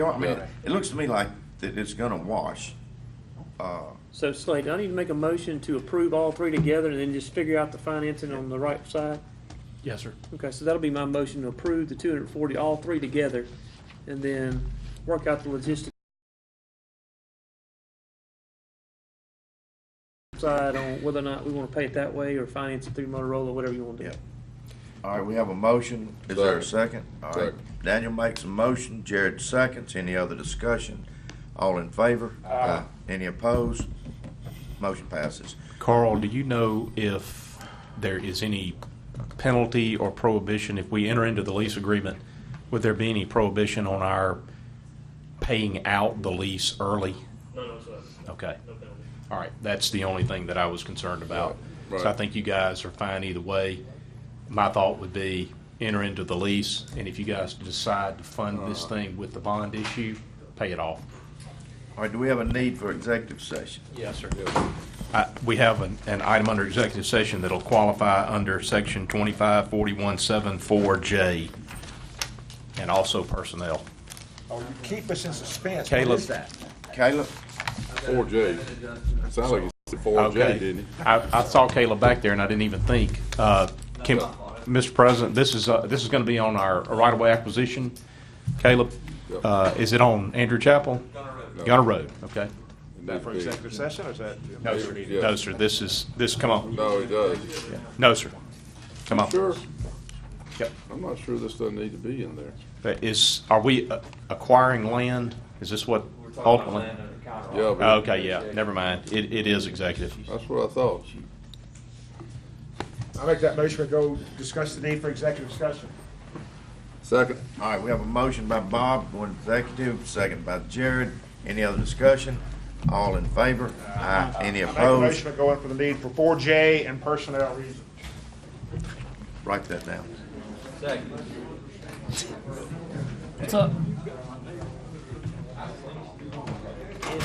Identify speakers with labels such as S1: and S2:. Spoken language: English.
S1: You know what I mean?
S2: Right.
S1: It looks to me like that it's gonna wash.
S3: So Slate, I need to make a motion to approve all three together and then just figure out the financing on the right side.
S2: Yes, sir.
S3: Okay, so that'll be my motion to approve the two hundred and forty, all three together, and then work out the logistics side on whether or not we want to pay it that way or finance it through Motorola, whatever you want to do.
S1: Yep. All right, we have a motion. Is there a second? All right.
S4: Second.
S1: Daniel makes a motion, Jared seconds. Any other discussion? All in favor? Aye. Any opposed? Motion passes.
S2: Carl, do you know if there is any penalty or prohibition if we enter into the lease agreement? Would there be any prohibition on our paying out the lease early?
S3: No, no, sir.
S2: Okay. All right, that's the only thing that I was concerned about.
S4: Right,
S2: So I
S4: right.
S2: think you guys are fine either way. My thought would be enter into the lease, and if you guys decide to fund this thing with the bond issue, pay it off.
S1: All right, do we have a need for executive session?
S2: Yes, sir. We have an, an item under executive session that'll qualify under section 25417-4J, and also personnel.
S5: Oh, you keep us in suspense. What
S2: Caleb.
S5: is that?
S1: Caleb?
S4: Four J. Sounded like you said four J,
S2: Okay.
S4: didn't it?
S2: I, I saw Caleb back there and I didn't even think. Uh, Can, Mr. President, this is, uh, this is gonna be on our right-of-way acquisition. Caleb,
S4: Yep.
S2: uh, is it on Andrew Chapel? Gunner
S4: No.
S2: Road. Gunner Road, okay.
S4: That for
S5: Executive session or is that?
S2: No, sir.
S4: Yeah.
S2: No, sir, this is, this, come on.
S4: No, it does.
S2: No, sir. Come on.
S4: Sure,
S2: Yep.
S4: I'm not sure this doesn't need to be in there.
S2: But Is, are we uh, acquiring land? Is this what ultimately?
S4: Yeah, but
S2: Okay, yeah, never mind. It, it is executive.
S4: that's what I thought.
S5: I make that motion, we go discuss the need for executive session.
S4: Second,
S1: All right, we have a motion by Bob, going executive, second by Jared. Any other discussion? All in favor? Aye. Any
S5: I make a
S1: opposed?
S5: motion, we go in for the need for four J and personnel reasons.
S1: Write that down.
S6: What's up?